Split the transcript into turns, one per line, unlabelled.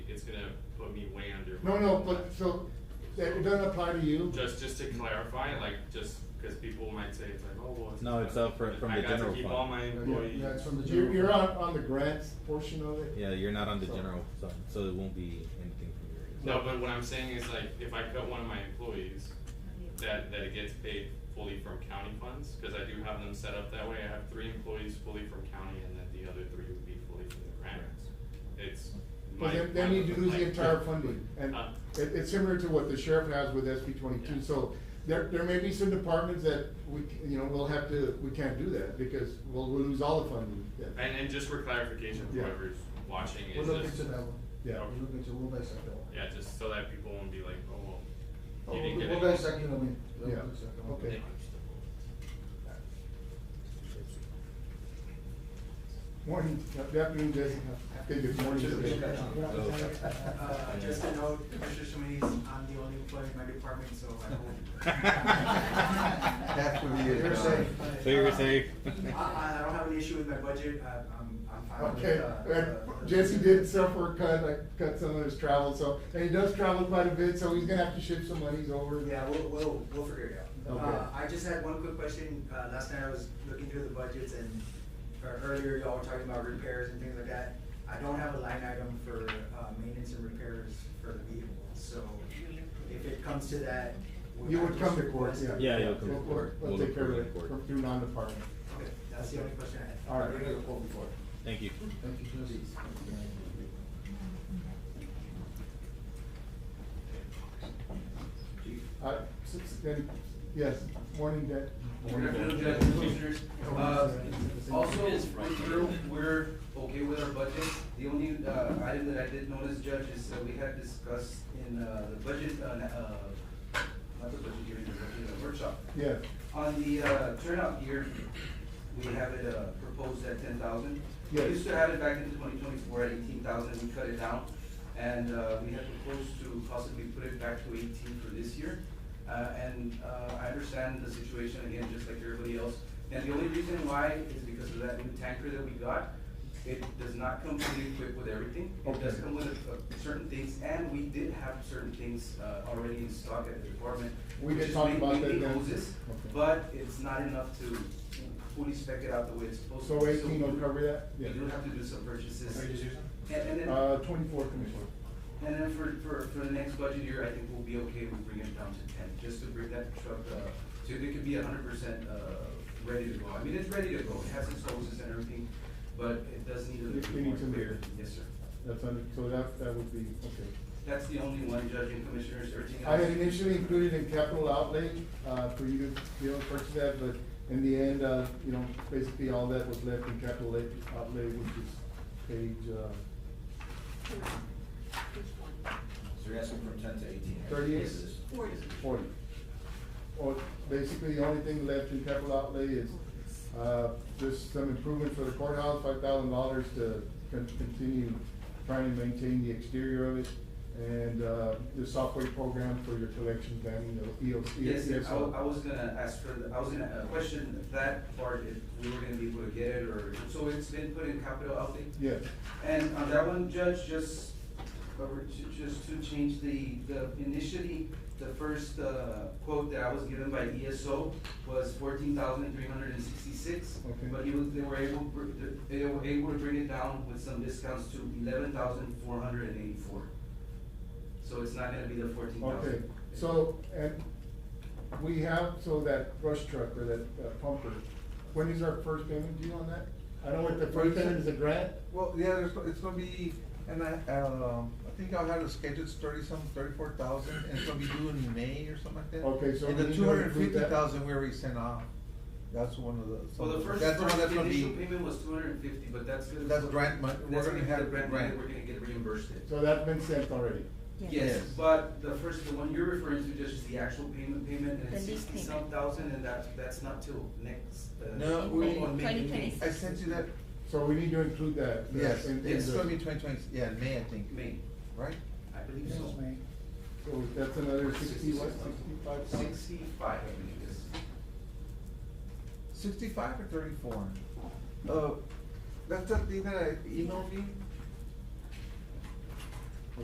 me way under.
No, no, but so, that it doesn't apply to you?
Just, just to clarify, like, just, cause people might say, it's like, oh, well. it's
No, it's up for- from the
I got
general
to keep
fund.
all my
Yeah,
employees.
yeah, it's from the
You're,
general
you're on,
fund.
on the grants portion of it?
Yeah, you're not on the
So-
general fund, so it won't be anything from your. end.
No, but what I'm saying is like, if I cut one of my employees, that, that it gets paid fully from county funds, cause I do have them set up that way, I have three employees fully from county, and then the other three would be fully from the grants. It's. my-
But then, then
my-
you lose
like-
the entire funding, and
Uh.
it, it's similar to what the sheriff has with SB
Yeah.
twenty-two, so there, there may be some departments that we, c- you know, we'll have to, we can't do that, because we'll, we'll lose all the funding. Yeah.
And, and just for clarification,
Yeah.
whoever's watching
We're
is
looking
just,
to that one.
Yeah.
We're looking to, we'll dissect that one.
yeah, just so that people won't be like, oh, well,
Oh,
you didn't get
we'll-
it.
We'll dissect it, I mean.
Yeah, okay. Morning, uh, good afternoon, Jessica. Okay, good morning. Jessica.
Uh, just a note, Commissioner Shumis, I'm the only employee in my department, so I hope.
That would be it.
You're safe. Uh,
So you're safe.
I, I don't have an issue with my budget, I- I'm, I'm fine with,
Okay,
uh.
and
uh,
Jesse did suffer a cut, like, cut some of his travel, so, and he does travel quite a bit, so he's gonna have to ship some monies over.
Yeah, we'll, we'll, we'll figure it out.
Okay.
Uh, I just had one quick question, uh, last night I was looking through the budgets and, or earlier y'all were talking about repairs and things like that. I don't have a line item for, uh, maintenance and repairs for the vehicle, so if it comes to that. would
You
I
would
just
come to court,
request-
yeah.
Yeah, you'll come
Go
to
for
court.
it.
We'll
We'll take care of
approve
it,
it in court.
through non-department.
Okay, that's the only question I had.
All right.
We're gonna go before.
Thank you.
Thank you, Jesse.
Uh, s- s- then- yes, morning, Dad.
Good afternoon, Judge, Commissioners. Uh, Also, with Drew, we're okay with our budget. The only uh, item that I did notice, Judge, is that we had discussed in uh, the budget, uh, uh, not the budget hearing, the budget uh, workshop.
Yeah,
On the uh, turnout gear, we have it uh, proposed at ten thousand. We
Yes.
used to have it back into twenty twenty-four at eighteen thousand, we cut it down. And uh, we had proposed to possibly put it back to eighteen for this year. Uh, And uh, I understand the situation again, just like everybody else. And the only reason why is because of that new tanker that we got. It does not come fully equipped with everything. It does
Okay.
come with uh, certain things, and we did have certain things uh, already in stock at the department.
We
which
did
is
talk
main-
about that
mainly
then.
hoses,
Okay.
But it's not enough to fully spec it out the way it's supposed to.
so eighteen will cover that?
We
Yeah.
do have to do some purchases. And, and then,
Uh, twenty-four, Commissioner.
and then for, for, for the next budget year, I think we'll be okay with bringing it down to ten, just to bring that truck, uh, so it could be a hundred percent, uh, ready to go. I mean, it's ready to go, it has its hoses and everything, but it does need a
It-
little
it
bit more.
needs some
equipment.
rear.
Yes, sir.
That's under, so that, that would be, okay.
That's the only one, Judge and Commissioners,
I
everything else.
had initially included in capital outlay, uh, for you to, be able to purchase that, but in the end, uh, you know, basically all that was left in capital a- outlay, which is page, uh,
So you're asking from ten to eighteen?
Thirty eight.
Yes.
forty. Or basically, the only thing left in capital outlay is, uh, just some improvements for the courthouse, five thousand dollars to con- continue trying to maintain the exterior of it. And, uh, the software program for your collection planning, the E EOC.
Yes, sir. I, wa- I was gonna ask for, the- I was gonna uh, question if that part, if we were gonna be able to get it, or, so it's been put in capital outlay?
Yes.
And on that one, Judge, just, or ju- just to change the, the, initially, the first, uh, quote that I was given by ESO was fourteen thousand three hundred and sixty-six.
Okay.
But he was, they were able, br- they were able to bring it down with some discounts to eleven thousand four hundred and eighty-four. So it's not gonna be the fourteen thousand.
Okay, so, and we have, so that brush truck or that uh, pumper, when is our first payment due on that? I know what the first payment is a grant,
Well, yeah, there's, it's gonna be, and I, um, I think I'll have it scheduled thirty some, thirty-four thousand, and it's gonna be due in May or something like that.
Okay, so
And
we
the
need to
two hundred and
include
fifty
that.
thousand we already sent off, that's one of the.
Well, the first,
that's one
first-
that's
the
gonna be-
initial payment was two hundred and fifty, but that's gonna.
That's grant mon- we're
That's
gonna
gonna be
have
the grant money
grant.
that we're gonna get reimbursed in.
so that's been sent already.
Yes,
Yes.
but the first, the one you're referring to just is the actual payment, payment, and it's
The lease
sixty some
payment.
thousand, and that's, that's not till next, uh.
No,
on
we-
May- May-
2026.
I sent you that,
So we need to include that. uh,
yes,
in- in
it's
the-
gonna be twenty twenty, yeah, in May, I think,
May,
right?
I believe so.
So that's another sixty, what, sixty-five?
Sixty-five, I believe, yes.
Sixty-five or thirty-four? Uh, that's the thing that I emailed me,